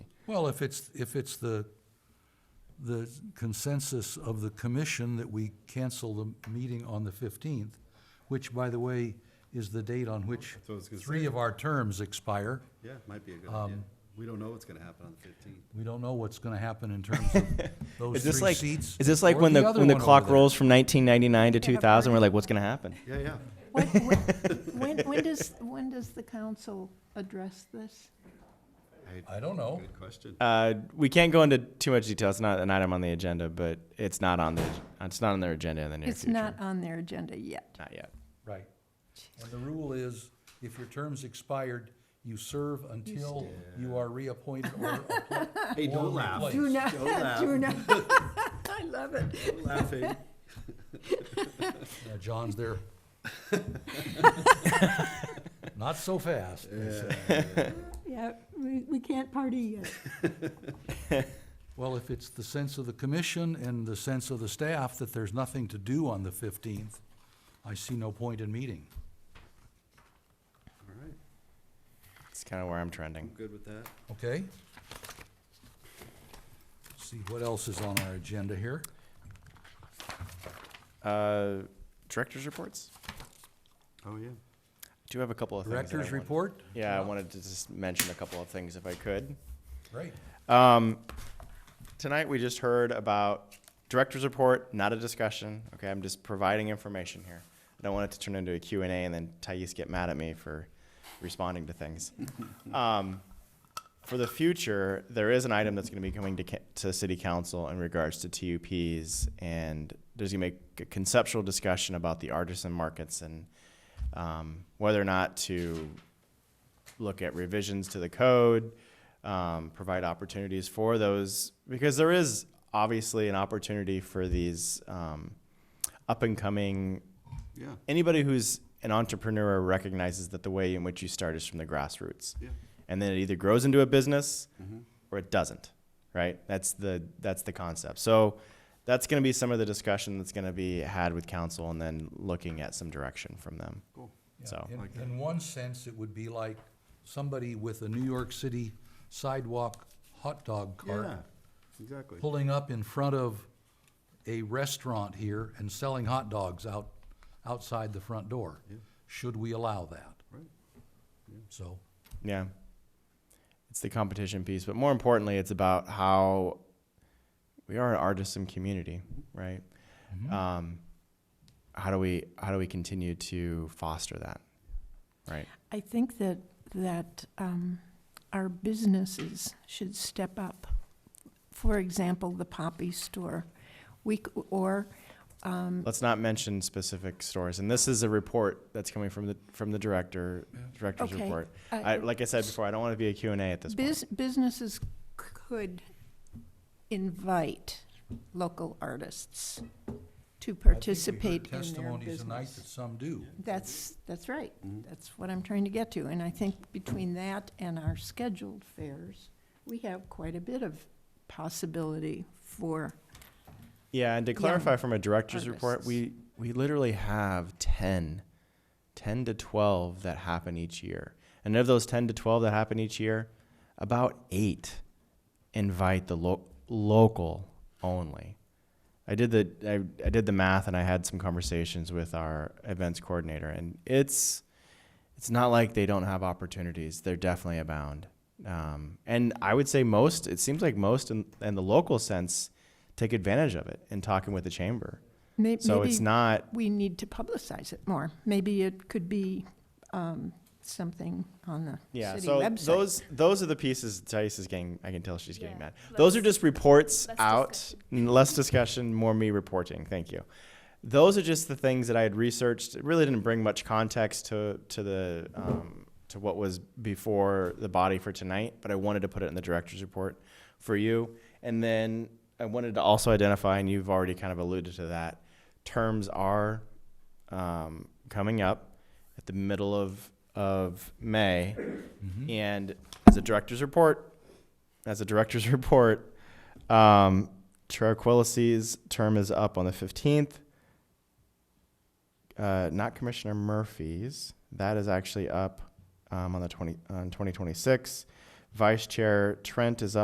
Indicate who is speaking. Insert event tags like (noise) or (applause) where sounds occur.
Speaker 1: Well, if it's, if it's the, the consensus of the commission that we cancel the meeting on the fifteenth, which, by the way, is the date on which
Speaker 2: That's what I was gonna
Speaker 1: three
Speaker 2: say.
Speaker 1: of our terms expire.
Speaker 2: Yeah, might be a good
Speaker 1: Um,
Speaker 2: idea. We don't know what's gonna happen on the fifteenth.
Speaker 1: We don't know what's gonna happen in terms
Speaker 2: (laughs)
Speaker 1: of those
Speaker 3: Is this
Speaker 1: three
Speaker 3: like
Speaker 1: seats.
Speaker 3: is this like
Speaker 1: or
Speaker 3: when the,
Speaker 1: other
Speaker 3: when the
Speaker 1: one over
Speaker 3: clock
Speaker 1: there.
Speaker 3: rolls from 1999 to
Speaker 4: They have
Speaker 3: 2000? We're
Speaker 4: already-
Speaker 3: like, what's gonna happen?
Speaker 2: Yeah, yeah.
Speaker 4: When, when,
Speaker 3: (laughs)
Speaker 4: when- when does, when does the council address this?
Speaker 1: I don't know.
Speaker 2: Good question.
Speaker 3: Uh, we can't go into too much detail. It's not an item on the agenda, but it's not on the it's not on their agenda in the near
Speaker 4: It's
Speaker 3: future.
Speaker 4: not on their agenda yet.
Speaker 3: Not yet.
Speaker 1: Right. And the rule is, if your term's expired, you serve until you are reappointed
Speaker 2: (laughs)
Speaker 1: or appointed.
Speaker 2: Hey,
Speaker 1: Or
Speaker 2: don't laugh.
Speaker 1: replace.
Speaker 4: Do not, (laughs)
Speaker 2: Don't laugh.
Speaker 4: do not. I love it.
Speaker 2: Don't laugh, (laughs) eh?
Speaker 1: Yeah, John's
Speaker 2: (laughs)
Speaker 1: there. Not so fast.
Speaker 4: Yeah, we, we can't party yet.
Speaker 1: Well, if it's the sense of the commission and the sense of the staff that there's nothing to do on the fifteenth, I see no point in meeting.
Speaker 2: All right,
Speaker 3: It's kind of where I'm
Speaker 2: I'm
Speaker 3: trending.
Speaker 2: good with that.
Speaker 1: Okay? See what else is on our agenda here.
Speaker 3: Uh, directors reports.
Speaker 2: Oh, yeah.
Speaker 3: I do have a couple of things that I
Speaker 1: Directors
Speaker 3: want-
Speaker 1: report?
Speaker 3: Yeah, I wanted to just mention a couple of things if I could.
Speaker 1: Great.
Speaker 3: Um, tonight we just heard about director's report, not a discussion. Okay, I'm just providing information here. I don't want it to turn into a Q and A and then Thais get mad at me for responding to things. Um, for the future, there is an item that's going to be coming to, ca- to city council in regards to TUPs, and there's going to be a conceptual discussion about the artisan markets and um, whether or not to look at revisions to the code, um, provide opportunities for those, because there is obviously an opportunity for these um, up and coming
Speaker 2: Yeah,
Speaker 3: anybody who's an entrepreneur recognizes that the way in which you start is from the grassroots
Speaker 2: yeah.
Speaker 3: and then it either grows into a business or it doesn't right that's the that's the concept so that's going to be some of the discussion that's going to be had with council and then looking at some direction from them
Speaker 2: Cool.
Speaker 1: Yeah,
Speaker 3: so
Speaker 1: in- In one sense, it would be like somebody with a New York City sidewalk hot dog cart
Speaker 2: Yeah, exactly.
Speaker 1: pulling up in front of a restaurant here and selling hot dogs out, outside the front door. Should we allow that?
Speaker 2: Right.
Speaker 1: So,
Speaker 3: yeah it's the competition piece but more importantly it's about how we are an artisan community right
Speaker 1: Mm-hmm.
Speaker 3: um, how do we how do we continue to foster that right
Speaker 4: I think that, that um, our businesses should step up. For example, the Poppy Store, we, c- or
Speaker 3: Let's not mention specific stores. And this is a report that's coming from the, from the director, director's
Speaker 4: Okay.
Speaker 3: report.
Speaker 4: Uh,
Speaker 3: I, like I said before, I don't want to be a Q and A at this point.
Speaker 4: Bus- Businesses c- could invite local artists to participate in their
Speaker 1: Testimonies tonight that
Speaker 4: business.
Speaker 1: some do.
Speaker 4: That's, that's right.
Speaker 2: Mm-hmm.
Speaker 4: That's what I'm trying to get to. And I think between that and our scheduled fairs, we have quite a bit of possibility for,
Speaker 3: Yeah, and to clarify from a director's
Speaker 4: Artists.
Speaker 3: report, we, we literally have 10, 10 to 12 that happen each year. And of those 10 to 12 that happen each year, about eight invite the lo- local only. I did the I, I did the math and I had some conversations with our events coordinator and it's it's not like they don't have opportunities. They're definitely abound. Um, and I would say most, it seems like most in, in the local sense take advantage of it in talking with the chamber.
Speaker 4: may-
Speaker 3: So it's
Speaker 4: maybe
Speaker 3: not,
Speaker 4: we need to publicize it more. Maybe it could be um, something on the
Speaker 3: yeah,
Speaker 4: city
Speaker 3: so
Speaker 4: website.
Speaker 3: those, those are the pieces Thais is getting, I can tell she's getting
Speaker 5: Yeah,
Speaker 3: mad. Those are
Speaker 5: less-
Speaker 3: just reports
Speaker 5: less
Speaker 3: out, n- less discussion, more me reporting, thank you. Those are just the things that I had researched, it really didn't bring much context to, to the, um, to what was before the body for tonight, but I wanted to put it in the director's report for you. And then I wanted to also identify, and you've already kind of alluded to that, terms are um, coming up at the middle of, of May. Mm-hmm.
Speaker 1: Mm-hmm.
Speaker 3: And as a director's report, as a director's (laughs) report, um, Tranquillicity's term is up on the 15th. Uh, not Commissioner Murphy's. That is actually up um, on the 20, on 2026. Vice Chair Trent is up.